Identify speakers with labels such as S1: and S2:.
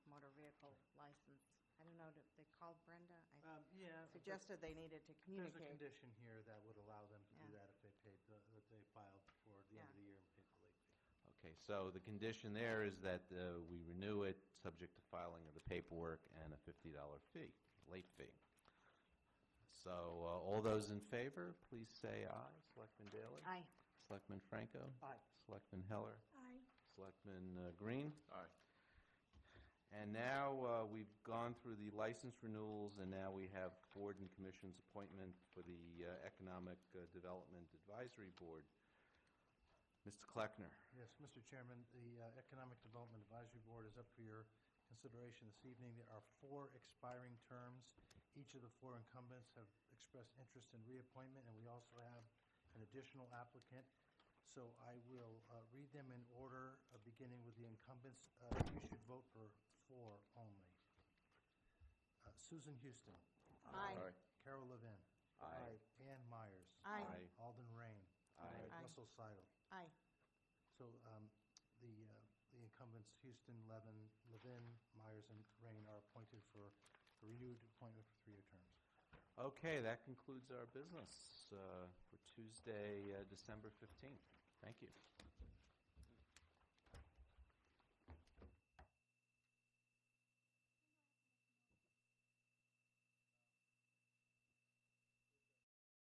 S1: out, if they called Brenda, I
S2: Um, yeah. but
S1: suggested they needed to
S2: There's a
S1: communicate.
S2: condition here that would allow them to do
S1: Yeah.
S2: that if they paid, the- that they filed before the end of
S1: Yeah.
S2: the year and paid the late fee.
S3: Okay, so the condition there is that uh, we renew it, subject to filing of the paperwork and a $50 fee, late fee. So uh, all those in favor, please say aye. Selectman Daly?
S1: Aye.
S3: Selectman Franco?
S2: Aye.
S3: Selectman Heller?
S1: Aye.
S3: Selectman uh, Green? Aye. And now, uh, we've gone through the license renewals, and now we have board and commission's appointment for the uh, Economic uh, Development Advisory Board. Mr. Kleckner?
S2: Yes, Mr. Chairman, the uh, Economic Development Advisory Board is up for your consideration this evening. There are four expiring terms. Each of the four incumbents have expressed interest in reappointment, and we also have an additional applicant. So I will uh, read them in order, uh, beginning with the incumbents. Uh, You should vote for four only. Uh, Susan Houston.
S1: Aye.
S2: Carol Levin.
S3: Aye.
S2: Ann Myers.
S1: Aye.
S2: Alden Rain.
S3: Aye.
S1: Aye.
S2: Russell Seidel.
S1: Aye.
S2: So um, the uh, the incumbents, Houston, Levin, Levin, Myers, and Rain are appointed for a renewed appointment for three-year terms.
S3: Okay, that concludes our business uh, for Tuesday, uh, December 15th. Thank you.